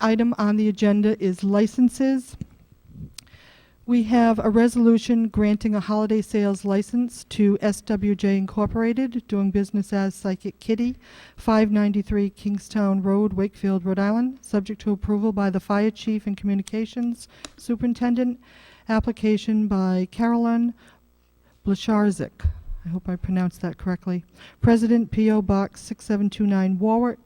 item on the agenda is licenses. We have a resolution granting a holiday sales license to SWJ Incorporated, doing business as Psychic Kitty, 593 Kingstown Road, Wakefield, Rhode Island, subject to approval by the Fire Chief and Communications Superintendent, application by Carolyn Blasharzik. I hope I pronounced that correctly. President P.O. Box 6729 Warwick,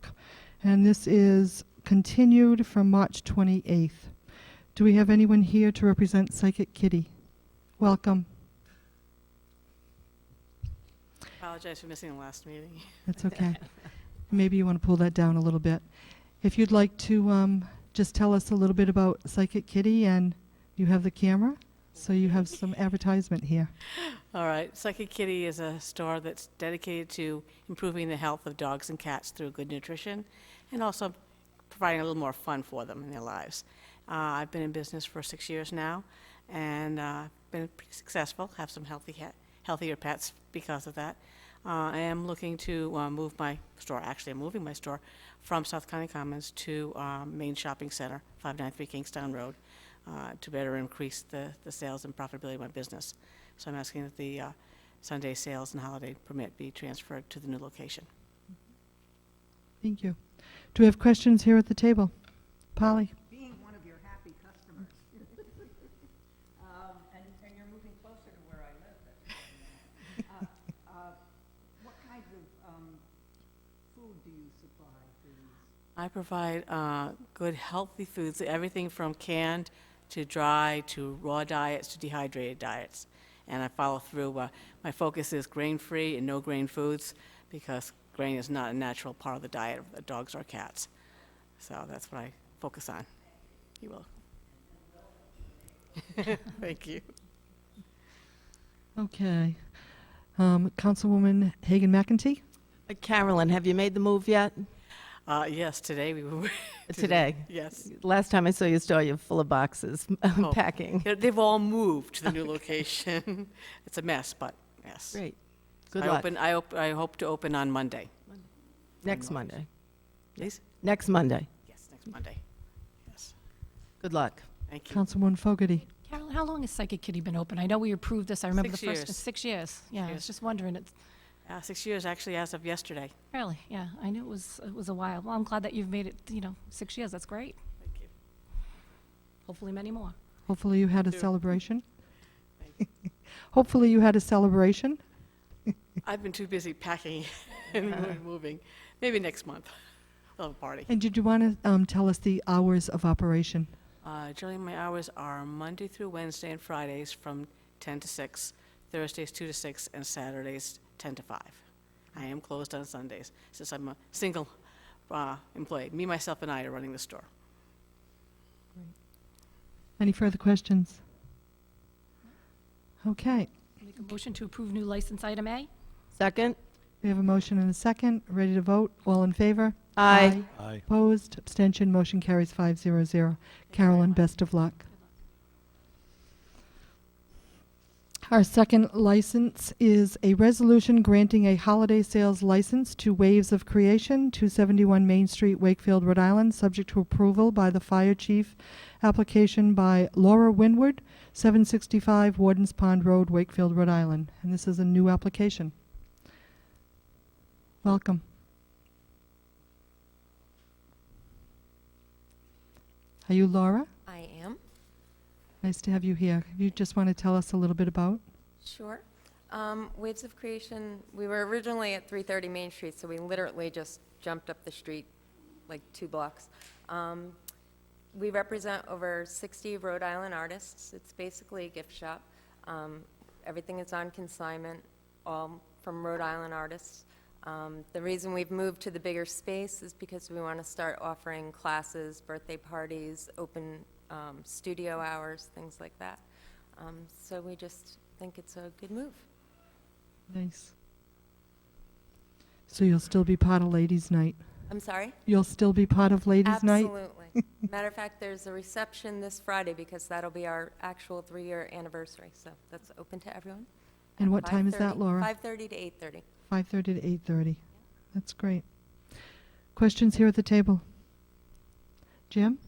and this is continued from March 28th. Do we have anyone here to represent Psychic Kitty? Welcome. Apologize for missing the last meeting. That's okay. Maybe you want to pull that down a little bit. If you'd like to um, just tell us a little bit about Psychic Kitty, and you have the camera, so you have some advertisement here. All right, Psychic Kitty is a store that's dedicated to improving the health of dogs and cats through good nutrition and also providing a little more fun for them in their lives. Uh, I've been in business for six years now and uh, been pretty successful, have some healthy cat, healthier pets because of that. Uh, I am looking to uh, move my store, actually, I'm moving my store from South County Commons to uh, Main Shopping Center, 593 Kingstown Road, uh, to better increase the, the sales and profitability of my business. So I'm asking that the uh, Sunday sales and holiday permit be transferred to the new location. Thank you. Do we have questions here at the table? Polly? being one of your happy customers. Um, And, and you're moving closer to where I live. that's what I know. Uh, uh, What kinds of um, food do you supply to these? I provide uh, good, healthy foods, everything from canned to dry to raw diets to dehydrated diets. And I follow through. Uh, my focus is grain free and no grain foods because grain is not a natural part of the diet of the dogs or cats. So that's what I focus on. You will. Thank you. Okay. Um, Councilwoman Hagan McEntee? Uh, Carolyn, have you made the move yet? Uh, yes, today we were. Today? Yes. Last time I saw your store, you were full of boxes, Oh. packing. They're- They've all moved to the new location. It's a mess, but yes. Great. Good I luck. open- I op- I hope to open on Monday. Next Monday. Please? Next Monday. Yes, next Monday. Yes, Good luck. thank you. Councilwoman Fogarty? Carol, how long has Psychic Kitty been open? I know we approved this, I remember the Six first, years. six years. Yeah, I years. was just wondering, it's, Uh, Six years, actually, as of yesterday. really, yeah, I knew it was, it was a while. Well, I'm glad that you've made it, you know, six years, that's great. Thank you. Hopefully many more. Hopefully you had a Sure. celebration. Hopefully you had a celebration. I've been too busy packing and moving. Maybe next month, we'll have a party. And did you want to um, tell us the hours of operation? Uh, Generally, my hours are Monday through Wednesday and Fridays from 10 to 6, Thursdays 2 to 6, and Saturdays 10 to 5. I am closed on Sundays, since I'm a single uh, employee. Me, myself, and I are running the store. Any further questions? Okay. Make a motion to approve new license item A? Second? We have a motion and a second. Ready to vote? All in favor? Aye. Aye. Opposed? Abstention? Motion carries 500. Carolyn, best of luck. Our second license is a resolution granting a holiday sales license to Waves of Creation, 271 Main Street, Wakefield, Rhode Island, subject to approval by the fire chief. Application by Laura Winward, 765 Wardens Pond Road, Wakefield, Rhode Island. And this is a new application. Welcome. Are you Laura? I am, Nice to have you here. You just want to tell us a little bit about? sure. Um, Waves of Creation, we were originally at 330 Main Street, so we literally just jumped up the street, like two blocks. Um, We represent over 60 Rhode Island artists. It's basically a gift shop. Um, Everything is on consignment, all from Rhode Island artists. Um, The reason we've moved to the bigger space is because we want to start offering classes, birthday parties, open um, studio hours, things like that. Um, So we just think it's a good move. Nice. So you'll still be part of Ladies' Night? I'm sorry? You'll still be part of Ladies' Night? Absolutely. Matter of fact, there's a reception this Friday because that'll be our actual three-year anniversary, so that's open to everyone. And at what time is that, 5:30 Laura? 5:30 to 8:30. 5:30 to 8:30. That's great. Questions here at the table? Jim?